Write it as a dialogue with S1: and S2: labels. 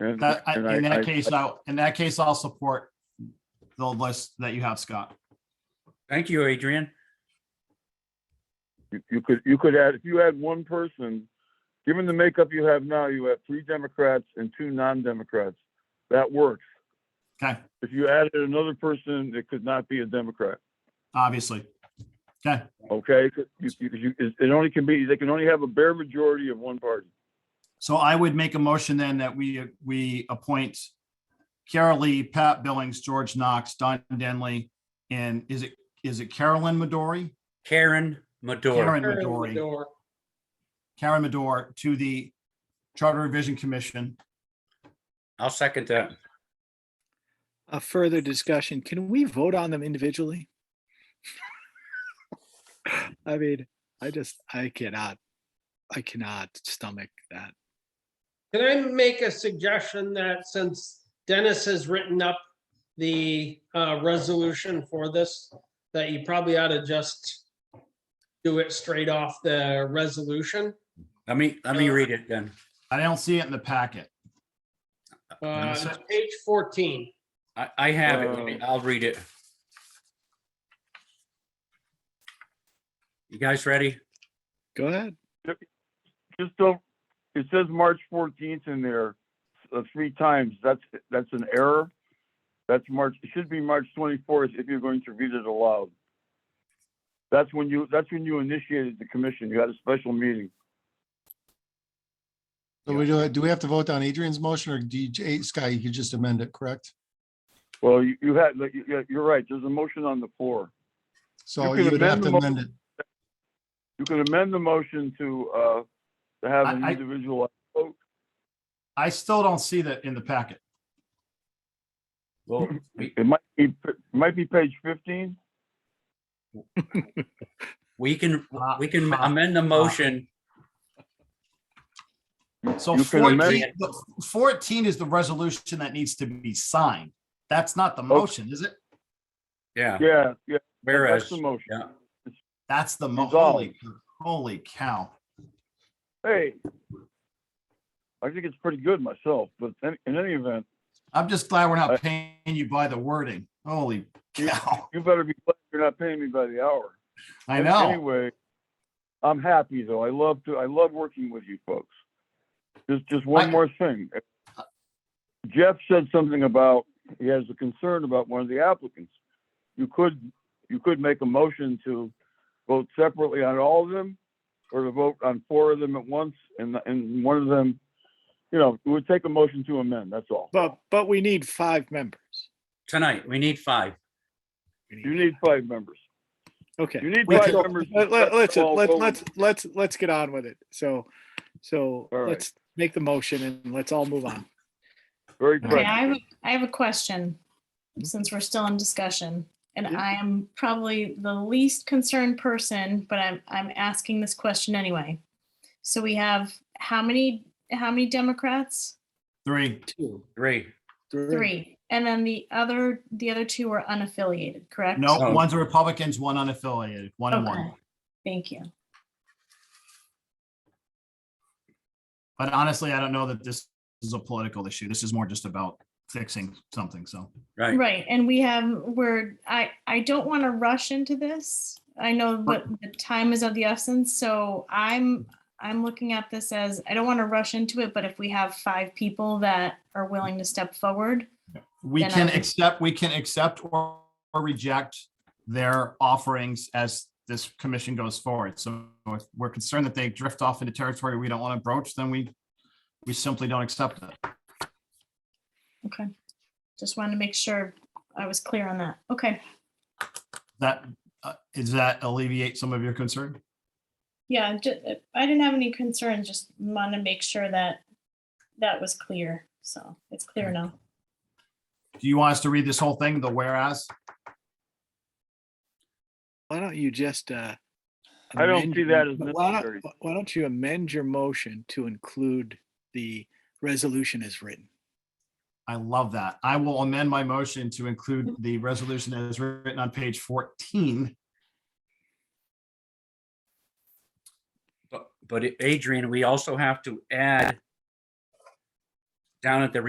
S1: And
S2: That, Uh, I-
S1: and
S2: in
S1: I- I-
S2: that case, I'll, in that case, I'll support the list that you have, Scott.
S3: Thank you, Adrian.
S1: you- You could, you could add, if you add one person, given the makeup you have now, you have three Democrats and two non-Democrats. That works.
S2: Okay,
S1: If you added another person, it could not be a Democrat,
S2: obviously. Okay,
S1: okay? You- you- you- It only can be, they can only have a bare majority of one party.
S2: so I would make a motion then that we, we appoint Carol Lee, Pat Billings, George Knox, Don Denley, and is it, is it Carolyn Midori?
S3: Karen Madore.
S2: Karen Midori,
S4: Door.
S2: Karen Midori to the Charter Revision Commission.
S3: I'll second that.
S5: A further discussion, can we vote on them individually? I mean, I just, I cannot, I cannot stomach that.
S4: Can I make a suggestion that since Dennis has written up the uh, resolution for this, that you probably ought to just do it straight off the resolution?
S3: Let me, let me read it then.
S2: I don't see it in the packet.
S4: Uh, it's Page 14.
S3: I, I have it. Let me- I'll read it. You guys ready?
S5: Go ahead.
S1: Just don't, it says March fourteenth in there, uh, three times. That's, that's an error. That's March, it should be March twenty-fourth if you're going to read it aloud. That's when you, that's when you initiated the commission. You had a special meeting.
S6: So we do, do we have to vote on Adrian's motion or DJ, Sky, you could just amend it, correct?
S1: Well, you, you had, like, you- you- you're right. There's a motion on the floor. You
S6: So
S1: can
S6: you would have
S1: amend
S6: to
S1: the
S6: amend it.
S1: You can amend the motion to, uh, to have an
S2: I- I-
S1: individual.
S2: I still don't see that in the packet.
S3: Well, we,
S1: It might be, it might be page fifteen.
S3: we can, we can
S2: Uh,
S3: amend the motion.
S2: So
S1: You can amend-
S2: 14 the- 14 is the resolution that needs to be signed. That's not
S1: Oh.
S2: the motion, is it?
S3: Yeah,
S1: Yeah, yeah, that's
S3: whereas,
S1: the motion.
S3: yeah,
S2: That's the mo-
S1: Resolve.
S2: holy, holy cow.
S1: Hey. I think it's pretty good myself, but in, in any event,
S2: I'm just glad we're
S1: Uh,
S2: not paying you by the wording. Holy cow.
S1: You better be glad you're not paying me by the hour.
S2: I know.
S1: Anyway, I'm happy though. I love to, I love working with you folks. Just, just one
S2: I-
S1: more thing. Jeff said something about, he has a concern about one of the applicants. You could, you could make a motion to vote separately on all of them or to vote on four of them at once and, and one of them, you know, it would take a motion to amend, that's all.
S5: But, but we need five members.
S3: tonight, we need five.
S5: We
S1: You need five members.
S5: Okay.
S1: You need
S5: We
S1: five
S5: can-
S1: members.
S5: Let, let, let's,
S1: All
S5: let's,
S1: vote.
S5: let's, let's, let's get on with it. So, so
S1: All right.
S5: let's make the motion and let's all move on.
S1: Very
S7: Okay,
S1: correct.
S7: I have, a- I have a question, since we're still in discussion, and I am probably the least concerned person, but I'm, I'm asking this question anyway. So we have how many, how many Democrats?
S2: Three.
S5: Two,
S3: Three.
S7: Three. And then the other, the other two are unaffiliated, correct?
S2: No,
S3: So-
S2: one's a Republicans, one unaffiliated, one and one.
S7: Okay. Thank you.
S2: But honestly, I don't know that this is a political issue. This is more just about fixing something, so.
S3: Right.
S7: Right, and we have, we're, I, I don't want to rush into this. I know
S2: Right.
S7: that the time is of the essence, so I'm, I'm looking at this as, I don't want to rush into it, but if we have five people that are willing to step forward,
S2: We
S7: Then
S2: can
S7: I-
S2: accept, we can accept or or reject their offerings as this commission goes forward. So if we're concerned that they drift off into territory we don't want to broach, then we, we simply don't accept it.
S7: just wanted to make sure I was clear on that. Okay,
S2: That, uh, does that alleviate some of your concern?
S7: yeah, ju- I didn't have any concerns, just want to make sure that that was clear, so it's clear now.
S2: Do you want us to read this whole thing, the whereas?
S5: Why don't you just, uh?
S1: I don't
S5: amend
S1: see
S5: your-
S1: that as
S5: but why don't-
S1: necessary.
S5: Why don't you amend your motion to include the resolution as written?
S2: I love that. I will amend my motion to include
S7: Mm-hmm.
S2: the resolution that is written on page 14.
S3: But, but Adrian, we also have to add down at the